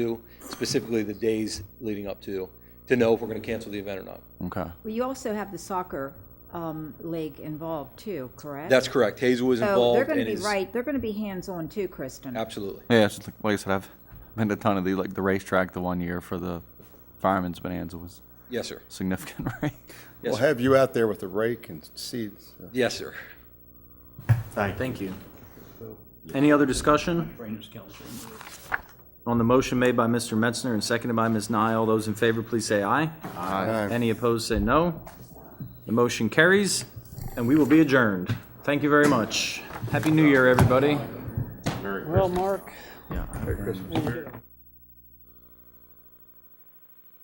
do, specifically the days leading up to, to know if we're going to cancel the event or not. Okay. Well, you also have the soccer um, league involved too, correct? That's correct. Hazel was So involved. they're going to and be is- right, they're going to be hands-on too, Kristen. Absolutely. Yeah, it's just like, like I said, I've been to a ton of the like the racetrack. The one year for the fireman's bonanza was Yes, sir. significant, right? Yes, We'll sir. have you out there with a rake and seeds. Yes, sir. Thank you. Any other discussion? On the motion made by Mr. Metzner and seconded by Ms. Nye, all those in favor, please say aye. Aye. Any opposed, say no. The motion carries, and we will be adjourned. Thank you very much. Happy New Year, everybody. Well, Mark, Yeah. when you get